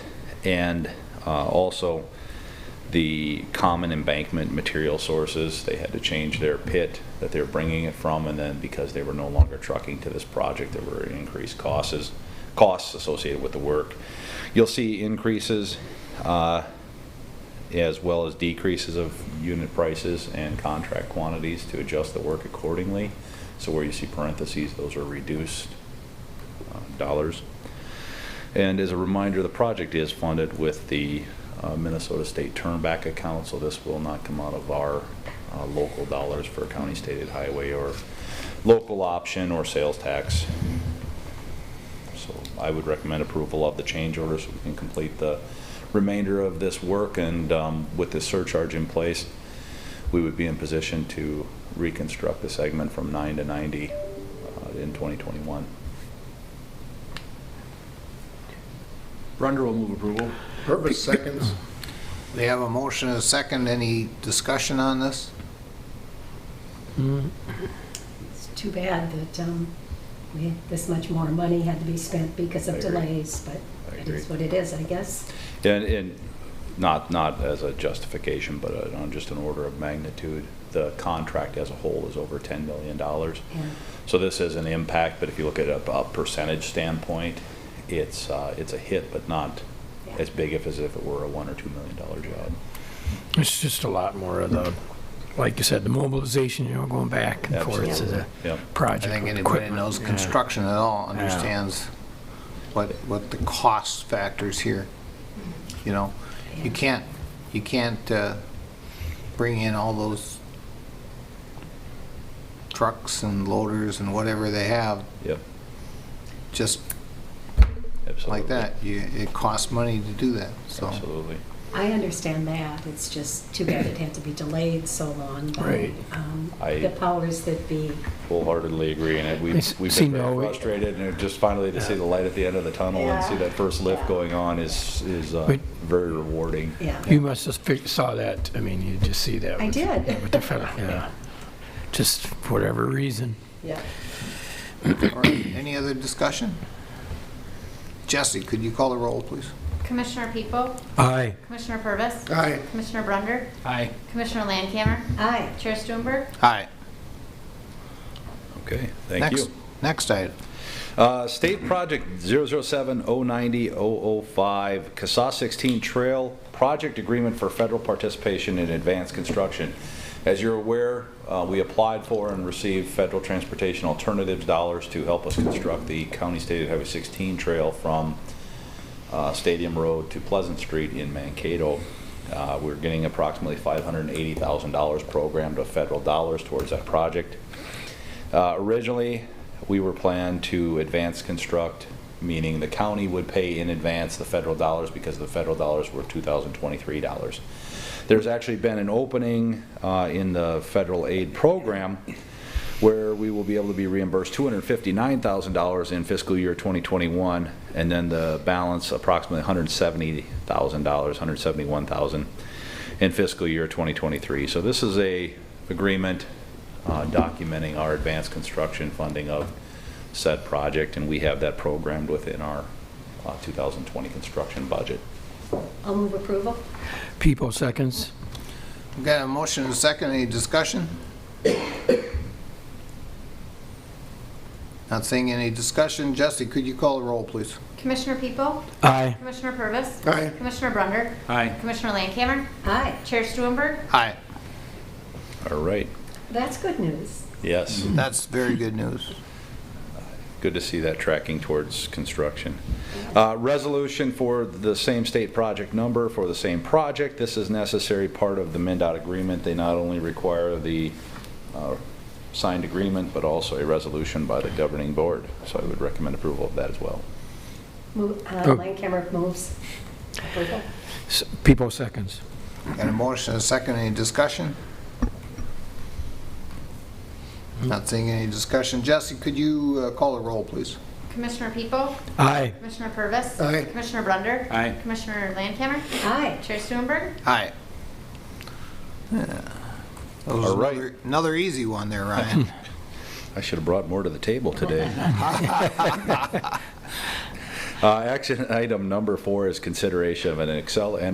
And uh, also, the common embankment material sources, they had to change their pit that they're bringing it from, and then because they were no longer trucking to this project, there were increased costs, costs associated with the work. You'll see increases uh, as well as decreases of unit prices and contract quantities to adjust the work accordingly. So where you see parentheses, those are reduced uh, dollars. And as a reminder, the project is funded with the uh, Minnesota State Turnback Account, so this will not come out of our uh, local dollars for county stated highway or local option or sales tax. So I would recommend approval of the change order so we can complete the remainder of this work. And um, with this surcharge in place, we would be in position to reconstruct the segment from 9 to 90 uh, in 2021. Brunder will move approval. Purvis seconds. We have a motion and a second. Any discussion on this? It's too bad that um, we had this much more money had to be spent because I of agree. delays, but I it agree. is what it is, I guess. And, and not, not as a justification, but uh, on just an order of magnitude, the contract as a whole is over $10 million. And So this is an impact, but if you look at a a percentage standpoint, it's, uh, it's a hit, but not Yeah. as big if as if it were a one or $2 million dollar job. It's just a lot more of the, like you said, the mobilization, you know, going back and forth to Absolutely. the Yep. I project. think with anybody that equipment. knows Yeah. construction at all understands what, what the cost factors here, you know? You Yeah. can't, you can't uh, bring in all those trucks and loaders and whatever they have Yep, just absolutely. like that. You, it costs money to do that, so. Absolutely. I understand that, it's just too bad it had to be delayed so long by Right. um, I- the powers that be. Wholeheartedly agree, and They we've, s- we've been seem to very always- frustrated, and just finally to see the light at the end of the tunnel and see Yeah. that first lift going on is, is uh, But- very rewarding. Yeah, You must have fi- saw that, I mean, you just see that. I with- did. yeah, With the federal, yeah. Just for whatever reason. yeah. All right, Any other discussion? Jesse, could you call the roll, please? Commissioner People, Aye. Commissioner Purvis. Aye. Commissioner Brunder, Aye. Commissioner Landcamer, Aye. Chair Stuenberg, Aye. Okay, thank you. Next item. Uh, State Project 007-090-005, CASA 16 Trail Project Agreement for Federal Participation in Advanced Construction. As you're aware, uh, we applied for and received federal transportation alternatives dollars to help us construct the County State Highway 16 Trail from uh, Stadium Road to Pleasant Street in Mankato. Uh, We're getting approximately $580,000 programmed of federal dollars towards that project. Uh, Originally, we were planned to advance construct, meaning the county would pay in advance the federal dollars because the federal dollars were 2023 dollars. There's actually been an opening uh, in the federal aid program where we will be able to be reimbursed $259,000 in fiscal year 2021, and then the balance approximately $170,000, $171,000 in fiscal year 2023. So this is a agreement uh, documenting our advanced construction funding of said project, and we have that programmed within our uh, 2020 construction budget. I'll move approval. People seconds. We've got a motion and a second. Any discussion? Not seeing any discussion. Jesse, could you call the roll, please? Commissioner People, Aye. Commissioner Purvis. Aye. Commissioner Brunder, Aye. Commissioner Landcamer, Aye, Chair Stuenberg, Aye. All right. that's good news. Yes. That's very good news. good to see that tracking towards construction. Uh, Resolution for the same state project number for the same project. This is necessary part of the MinDOT agreement. They not only require the uh, signed agreement, but also a resolution by the governing board. So I would recommend approval of that as well. Move, uh, Oh. Land camera moves approval. S- People seconds. Got a motion and a second. Any discussion? Not seeing any discussion. Jesse, could you uh, call the roll, please? Commissioner People, Aye. Commissioner Purvis. Aye. Commissioner Brunder. Aye. Commissioner Landcamer, Aye, Chair Stuenberg, Aye. That was All right. another- Another easy one there, Ryan. I should have brought more to the table today. Uh, Action item number four is consideration of an Excel